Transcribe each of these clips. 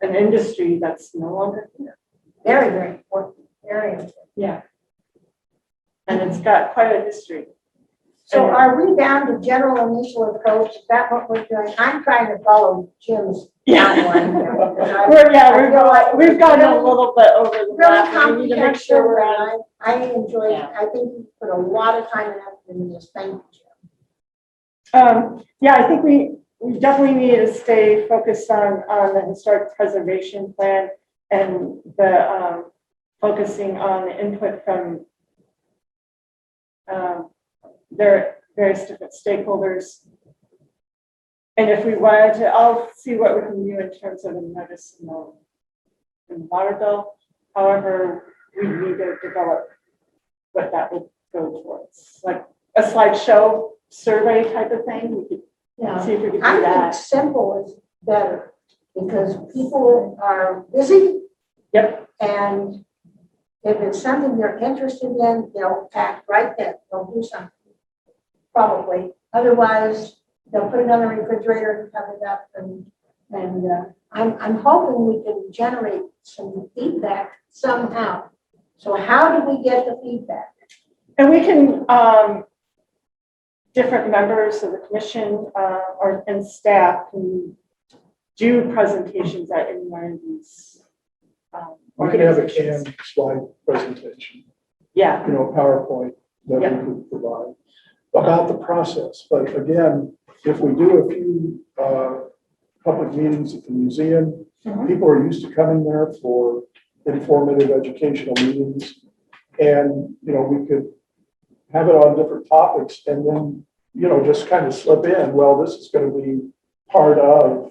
an industry that's no longer here. Very, very important area. Yeah. And it's got quite a history. So are we down to general initial approach? Is that what we're doing? I'm trying to follow Jim's outline here. I We're, yeah, I we've feel like gone, we've gone a really- little bit over the Really lap. and We need to make sure comprehensive, we're on. and I I enjoyed, Yeah. I think you put a lot of time and effort into this. Thank you, Jim. Um, yeah, I think we, we definitely need to stay focused on, on the historic preservation plan and the, um, focusing on the input from, um, their various different stakeholders. And if we wanted to, I'll see what we can do in terms of a notice in the, in the water bill. However, we need to develop what that would go towards, like a slideshow survey type of thing. We could Yeah. See if we could do I think that. simple is better because people are busy. Yep. And if it's something they're interested in, they'll act right then. They'll do something. Probably. Otherwise, they'll put it on the refrigerator and cover it up and, and uh, I'm, I'm hoping we can generate some feedback somehow. So how do we get the feedback? And we can, um, different members of the commission, uh, or, and staff can do presentations at any one of these. um, We could have a organizations. canned slide presentation, Yeah, you know, PowerPoint that we Yeah. could provide about the process. But again, if we do a few uh, public meetings at the museum, Mhm. people are used to coming there for informative educational meetings. And, you know, we could have it on different topics and then, you know, just kind of slip in, well, this is going to be part of,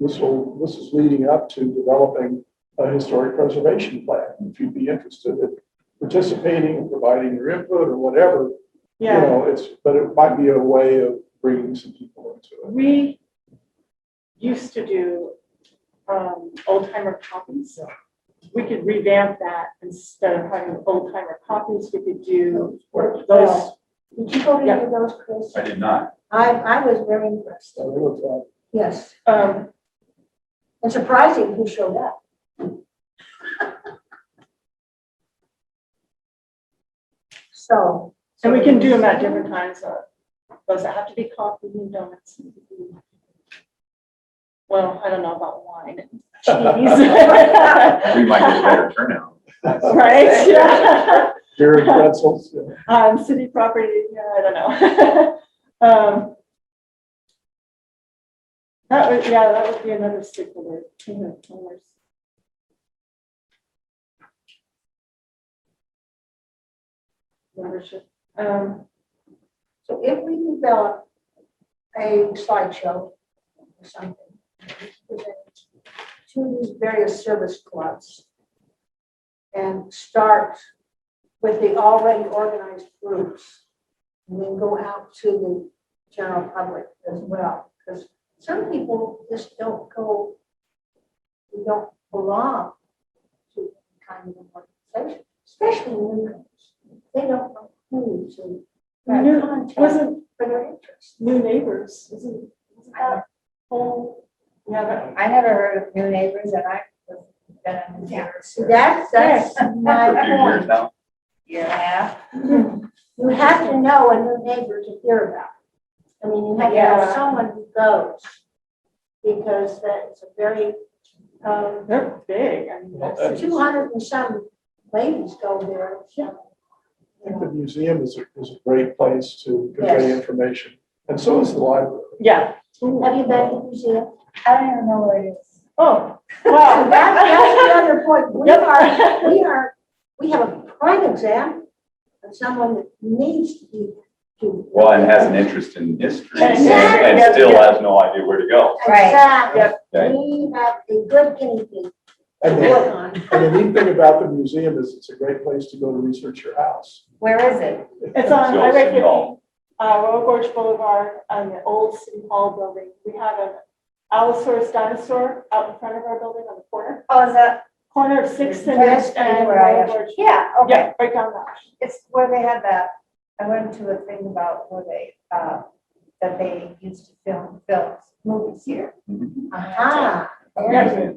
this will, this is leading up to developing a historic preservation plan. If you'd be interested in participating and providing your input or whatever, you yeah. know, it's, but it might be a way of bringing some people into it. We used to do, um, old timer copies. We could revamp that instead of having old timer copies. We could do those. Did you go to any of those, Chris? I did not. I, I was very impressed. So it uh, looks like- Yes. Um, And surprising who showed up. So. And we can do them at different times, uh, those that have to be coffee and donuts. Well, I don't know about wine and cheese. We might get a better turnout. Right, yeah, Beer and pretzels, yeah. on city property, yeah, I don't know. Um, That would, yeah, that would be another stakeholder, you know, owners. Membership, um. So if we develop a slideshow or something, present to these various service clubs and start with the already organized groups, and then go out to the general public as well, because some people just don't go, they don't belong to kind of an organization, especially newcomers. They don't know who to. New- contact Wasn't for their interest. new neighbors, isn't, isn't that whole? Yeah, but I never heard of new neighbors and I was been in the neighborhood for a That's, that's my For a few years point. now. year and a half. You have to know a new neighbor to hear about. I mean, you have to Yeah. have someone who goes. Because that's a very, um, they're big, I mean, Well, that's- that's- two hundred and some ladies go there. I think You the museum is, a- is a great place to convey Yes. information, and so is the library. yeah. know. Have you been to the museum? I don't even know where it is. Oh, So That's, that's wow. another point. We Yep. are, we are, we have a prime exam of someone that needs to be. to- Well, and has an interest in history And- and and still has no idea where to go. Right. Exactly. Okay. We have a good guinea pig to And the, work on. and the neat thing about the museum is it's a great place to go to research your house. Where is it? It's on Still Highway fifty, City uh, Hall. Royal Gorge Boulevard, on the old City Hall building. We had an Allosaurus dinosaur out in front of our building on the corner, Oh, is that? corner of Sixth and That's and where I Royal am. Gorge. Yeah, okay. Yeah, right down that. It's where they had that, I went to a thing about where they, uh, that they used to film films, movies here. Mhm. Ah. Museum.